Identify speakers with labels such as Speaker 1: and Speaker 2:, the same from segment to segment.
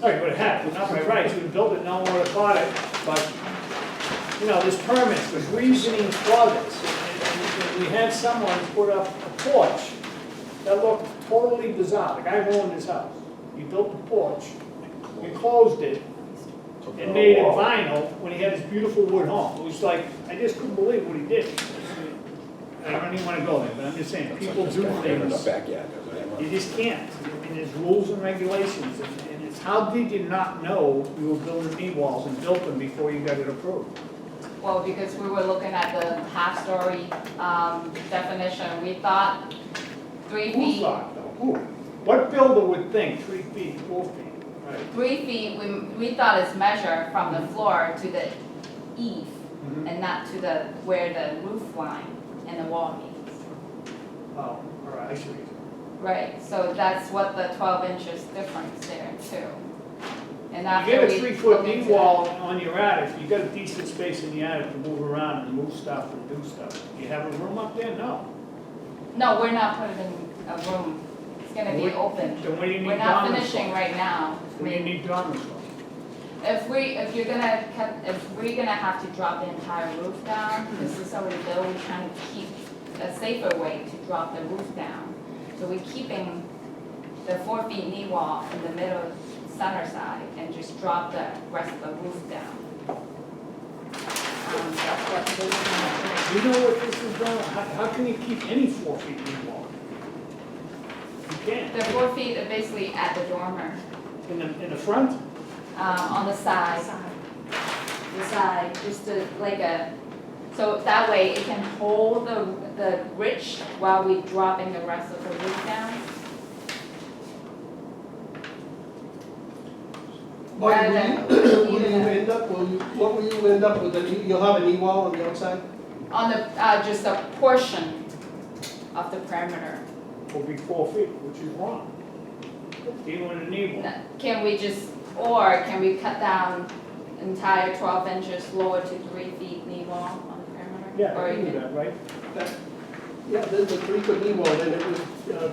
Speaker 1: No, you would have had, it, not by right, you would have built it, no one would have bought it, but, you know, there's permits, there's reasoning for this. And- and We had someone put up a porch that looked totally bizarre, the guy ruined his house. He built the porch, enclosed it,
Speaker 2: Took
Speaker 1: and
Speaker 2: out
Speaker 1: made it
Speaker 2: a wall.
Speaker 1: vinyl when he had his beautiful wood home. It was like, I just couldn't believe what he did. I don't even wanna go there, but I'm just saying, people do things.
Speaker 3: Backyard.
Speaker 1: You just can't. I mean, there's rules and regulations, and and it's how did you not know you were building knee walls and built them before you got it approved?
Speaker 4: Well, because we were looking at the half-story um, definition, we thought three
Speaker 1: Who
Speaker 4: feet,
Speaker 1: thought, though? Who? What builder would think three feet, four feet? Right.
Speaker 4: three feet, we, we thought is measured from the floor to the eave
Speaker 1: Mhm.
Speaker 4: and not to the, where the roof line and the wall meets.
Speaker 1: Oh, all right, I see. what you're saying.
Speaker 4: Right, so that's what the twelve inches difference there too. And
Speaker 1: You
Speaker 4: after
Speaker 1: get
Speaker 4: we.
Speaker 1: a three-foot
Speaker 4: looked
Speaker 1: knee
Speaker 4: into that-
Speaker 1: wall on your attic, you got a decent space in the attic to move around and move stuff and do stuff. You have a room up there? No.
Speaker 4: No, we're not putting in a room, it's gonna be
Speaker 1: Well,
Speaker 4: open.
Speaker 1: Then what do you
Speaker 4: We're
Speaker 1: need
Speaker 4: not
Speaker 1: dormers
Speaker 4: finishing
Speaker 1: for?
Speaker 4: right now.
Speaker 1: What do you need dormers for?
Speaker 4: If we, if you're gonna, cut- if we're gonna have to drop the entire roof down, this is already built, we're trying to keep a safer way to drop the roof down. So we're keeping the four feet knee wall in the middle center side and just drop the rest of the roof down. Um, that's what we're looking at.
Speaker 1: You know what this is about? How, how can you keep any four feet knee wall? You can't.
Speaker 4: The four feet are basically at the dormer,
Speaker 1: In the, in the front?
Speaker 4: um, on the side. the side, just to, like a, so that way it can hold the, the ridge while we dropping the rest of the roof down.
Speaker 5: But
Speaker 4: Rather than
Speaker 5: will you, will you
Speaker 4: even a-
Speaker 5: end up, will you, what will you end up with, That you- you'll have a knee wall on the outside?
Speaker 4: On the, uh, just a portion of the perimeter.
Speaker 1: will be four feet, which is wrong. Even with a knee wall.
Speaker 4: Can we just, or can we cut down entire twelve inches lower to three feet knee wall on the perimeter?
Speaker 1: Yeah,
Speaker 4: Or
Speaker 1: I can do
Speaker 4: even-
Speaker 1: that, right?
Speaker 5: That- Yeah, there's a three foot knee wall, then it would, uh,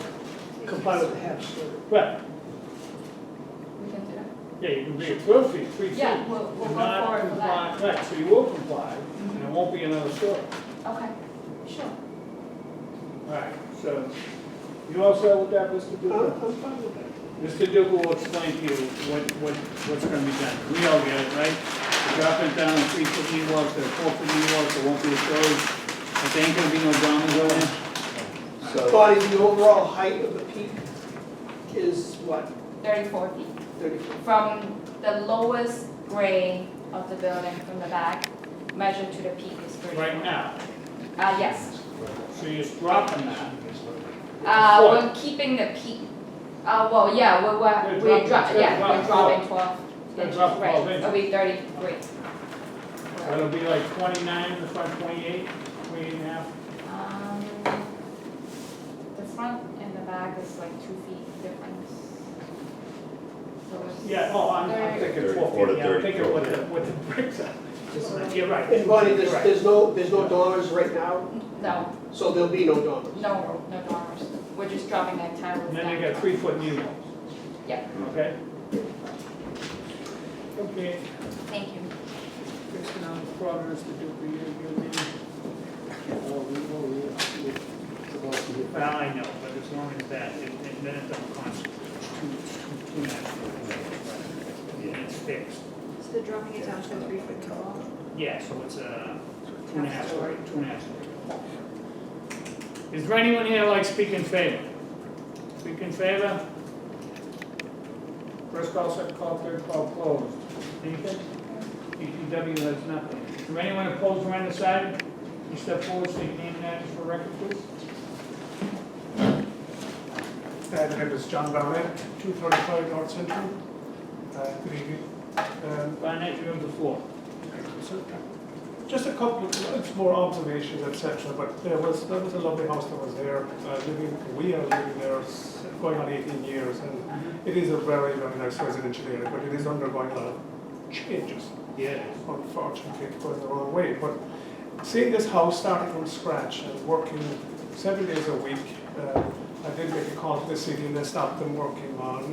Speaker 5: comply with the half story.
Speaker 1: Right,
Speaker 4: We can do that.
Speaker 1: yeah, you can be at twelve feet, three feet.
Speaker 4: Yeah, we'll, we'll
Speaker 1: Do
Speaker 4: go
Speaker 1: not
Speaker 4: forward with that.
Speaker 1: comply- Right, so you will comply, and it won't be another story.
Speaker 4: Okay, sure.
Speaker 1: All right, so, you all set with that, Mr.
Speaker 5: I'm,
Speaker 1: Dugan?
Speaker 5: I'm fine with that.
Speaker 1: Mr. Dugan will explain to you what, what, what's gonna be done. We all get it, right? You Drop it down, three foot knee walls, there are four foot knee walls, there won't be a story. But there ain't gonna be no dormers over there.
Speaker 3: So,
Speaker 5: Bonnie, the overall height of the peak is what,
Speaker 4: Thirty-four feet.
Speaker 5: thirty foot?
Speaker 4: From the lowest grade of the building from the back, measured to the peak is thirty.
Speaker 1: Right now,
Speaker 4: Uh, yes.
Speaker 1: so you're just dropping that.
Speaker 4: Uh,
Speaker 1: Foot.
Speaker 4: we're keeping the peak, uh, well, yeah, we're, we're,
Speaker 1: We're
Speaker 4: we're
Speaker 1: dropping-
Speaker 4: dropping, yeah,
Speaker 1: dropping
Speaker 4: we're dropping twelve
Speaker 1: We're
Speaker 4: inches,
Speaker 1: dropping 12
Speaker 4: right,
Speaker 1: inches.
Speaker 4: it'll be thirty-three.
Speaker 1: So It'll be like twenty-nine in the front, 28, 28 and a half.
Speaker 4: Um, the front and the back is like two feet difference. So it's-
Speaker 1: Yeah, oh, I'm, I'm thinking four
Speaker 2: 34 to
Speaker 1: feet, yeah, I'm thinking what the,
Speaker 2: 34.
Speaker 1: what the bricks are. Just like- You're right.
Speaker 5: And Bonnie, there's,
Speaker 1: You're right.
Speaker 5: there's no, there's no dormers right now,
Speaker 4: No,
Speaker 5: so there'll be no dormers.
Speaker 4: no, no dormers, we're just dropping the entire roof
Speaker 1: And
Speaker 4: down.
Speaker 1: then you got three-foot knee walls.
Speaker 4: Yeah.
Speaker 1: Okay? Okay,
Speaker 4: Thank you.
Speaker 1: fixing on the progress to do for you, you Well, I know, but as long as that, it, it, then it don't constitute two, two, two and a half feet. And it's fixed.
Speaker 6: So they're dropping it down to a three foot wall?
Speaker 1: Yeah, so it's a two and a half story, two and a half story. Is there anyone here like speak in favor? Speak in favor? First call, second call, third call closed. Anything? DPW has nothing. Is there anyone opposed or undecided? You step forward, state your name and address for record, please.
Speaker 7: Hi, my name is John Barnett, 235 North Central. Uh, Good evening. Um,
Speaker 1: Barnett, you have the floor.
Speaker 7: so, Just a couple, it's more observations, etc. but there was, there was a lovely house that was there, uh, living, we are living there s- going on 18 years, and it is a very, very nice residential area, but it is undergoing a lot of changes,
Speaker 1: Yeah.
Speaker 7: unfortunately, it goes the wrong way. But seeing this house starting from scratch and working seven days a week, uh, I did make a call to the city and they stopped them working on